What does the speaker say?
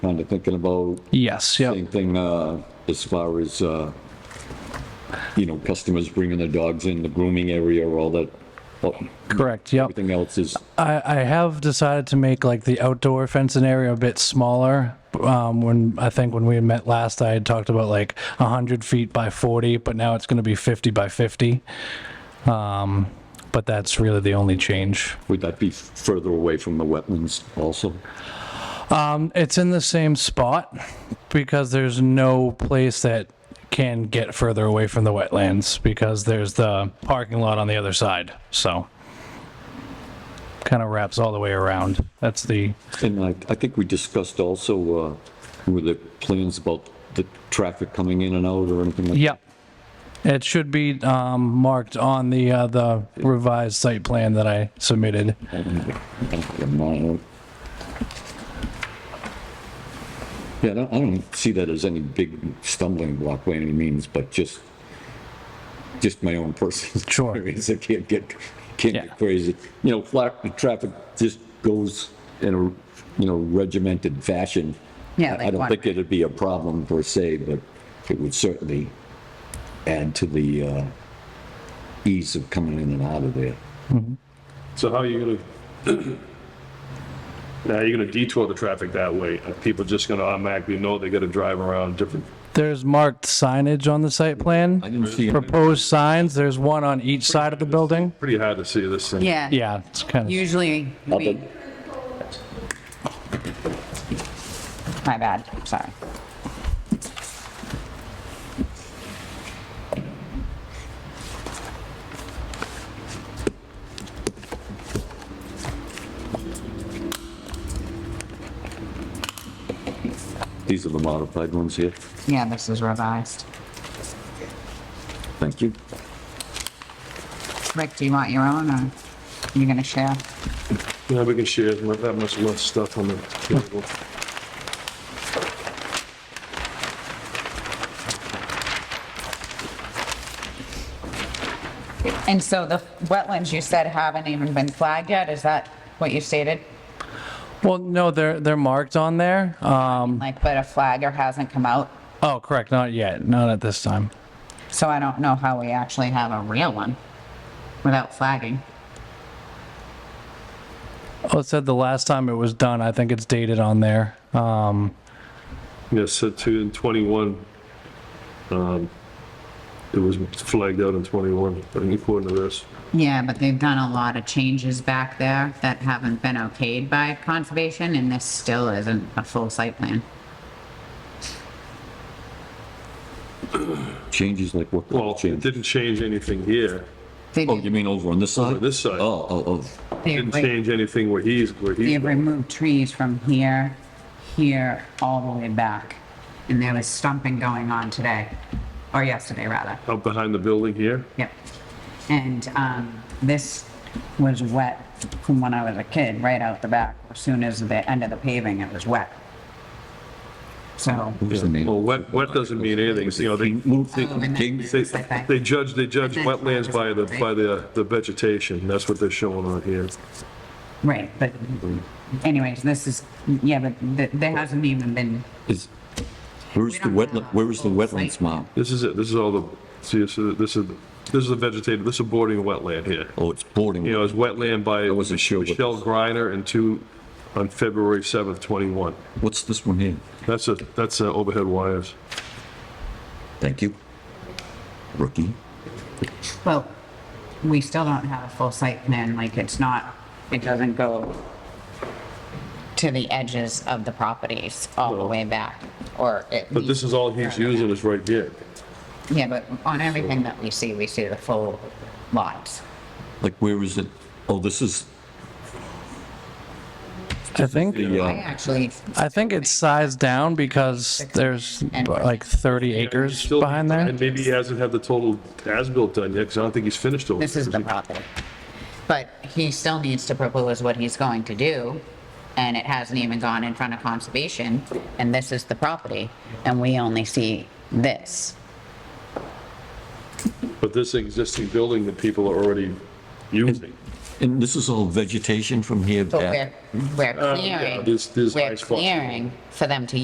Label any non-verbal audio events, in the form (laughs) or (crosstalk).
kind of thinking about Yes, same yep, thing uh, as far as, uh, you know, customers bringing their dogs in, the grooming area, all that. Well, correct, yep. Everything else is, I, I have decided to make like the outdoor fencing area a bit smaller. Um, when I think when we had met last, I had talked about like 100 feet by 40, but now it's going to be 50 by 50. Um, but that's really the only change. would that be further away from the wetlands also? Um, it's in the same spot because there's no place that can get further away from the wetlands because there's the parking lot on the other side. So kind of wraps all the way around. That's the And I, I think we discussed also, uh, were the plans about the traffic coming in and out or anything like? Yep. It should be um, marked on the, uh, the revised site plan that I submitted. that. Yeah, I don't, I don't see that as any big stumbling block by any means, but just, just my own personal (laughs) Sure. experience. I can't get, can't Yeah. get crazy. You know, flat, the traffic just goes in a, you know, regimented fashion. I- Yeah, I like don't one- think it'd be a problem per se, but it would certainly add to the uh, ease of coming in and out of there. So how are you gonna, (clears throat) now you're gonna detour the traffic that way? Are people just gonna automatically know they gotta drive around different? There's marked signage on the site plan. I didn't see it. Proposed signs, there's one on each side of the building. Pretty hard to see this thing. Yeah. Yeah, it's kind of, Usually, we, Other- my bad, sorry. These are the modified ones here. Yeah, this is revised. Thank you. Rick, do you want your own or you gonna share? Yeah, we can share that much less stuff on the table. And so the wetlands you said haven't even been flagged yet, is that what you stated? well, no, they're, they're marked on there. Um, Like, but a flagger hasn't come out, oh, correct, not yet, not at this time. so I don't know how we actually have a real one without flagging. Oh, it said the last time it was done, I think it's dated on there. Um, Yeah, set to in 21. um, It was flagged out in 21, but according to this. Yeah, but they've done a lot of changes back there that haven't been okayed by conservation and this still isn't a full site plan. Changes like what? Well, it change? didn't change anything here. They Oh, you mean over on this side? Over this side. Oh, oh, oh. Didn't change anything where he's, where he's. They've removed trees from here, here, all the way back. And there was stumping going on today, or yesterday rather. Out behind the building here? Yep. And um, this was wet from when I was a kid, right out the back. As soon as the end of the paving, it was wet. So, What was the name? Well, wet, wet doesn't mean anything, you know, they. Move the Oh, and then- king. They, Okay. they judge, they judge wetlands by the, by the, the vegetation, that's what they're showing on here. right, but anyways, this is, yeah, but th- there hasn't even been, Is- Where's We the don't have wetland, where is the a full wetlands site. map? This is it, this is all the, see, this is, this is, this is the vegetative, this is bordering wetland here. Oh, it's boarding. You know, it's wetland by wasn't sure what- Michelle Griner and two, on February 7th, 21. What's this one here? That's a, that's uh overhead wires. Thank you. Rookie. well, we still don't have a full site plan, like it's not, it doesn't go to the edges of the properties all the way back, or it. But this is all he's using is right here. Yeah, but on everything that we see, we see the full lots. Like, where is it? Oh, this is I think. the, I uh, actually, I think it's sized down because there's like 30 acres Still- behind there. And maybe he hasn't had the total as-built done yet, because I don't think he's finished all. this is the property. But he still needs to propose what he's going to do, and it hasn't even gone in front of conservation, and this is the property, and we only see this. But this existing building that people are already using. and this is all vegetation from here But back? we're, we're Uh, yeah, clearing, this- this we're ice box. clearing for them to